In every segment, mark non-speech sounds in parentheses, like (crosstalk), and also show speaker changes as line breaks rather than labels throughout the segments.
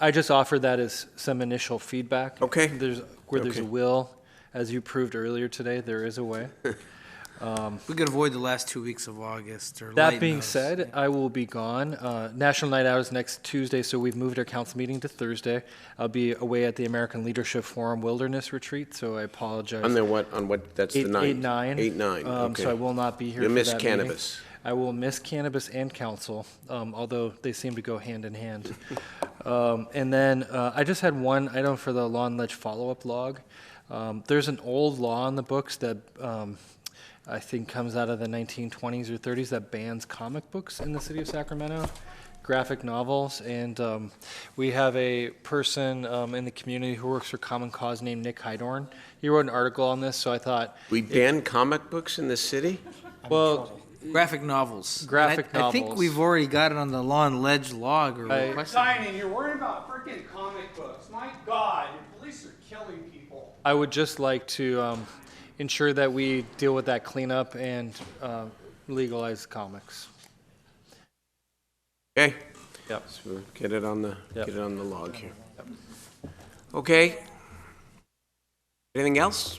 I just offered that as some initial feedback.
Okay.
There's, where there's a
Okay.
will, as you proved earlier today, there is a way.
We could avoid the last two weeks of August or
That
lighten
being
those.
said, I will be gone. Uh, National Night Out is next Tuesday, so we've moved our council meeting to Thursday. I'll be away at the American Leadership Forum Wilderness Retreat, so I apologize.
On the what, on what, that's the
Eight-
ninth?
Eight, nine.
Eight, nine,
Um,
okay.
So I will not be here
You'll
for
miss
that meeting.
cannabis.
I will miss cannabis and council, um, although they seem to go hand in
(laughs)
hand. Um, and then, uh, I just had one item for the lawn ledge follow-up log. Um, there's an old law in the books that, um, I think comes out of the nineteen twenties or thirties that bans comic books in the city of Sacramento, graphic novels, and, um, we have a person, um, in the community who works for Common Cause named Nick Hydorn. He wrote an article on this, so I thought,
We ban comic books in this city?
well,
graphic novels.
Graphic
I, I think
novels.
we've already got it on the lawn ledge log or
I-
request.
sign and you're worried about freaking comic books. My God, the police are killing people.
I would just like to um, ensure that we deal with that cleanup and uh, legalize comics.
Okay,
Yep.
so get it on the,
Yep.
get it on the log here. Okay? Anything else?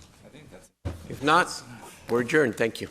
If not, we're adjourned, thank you.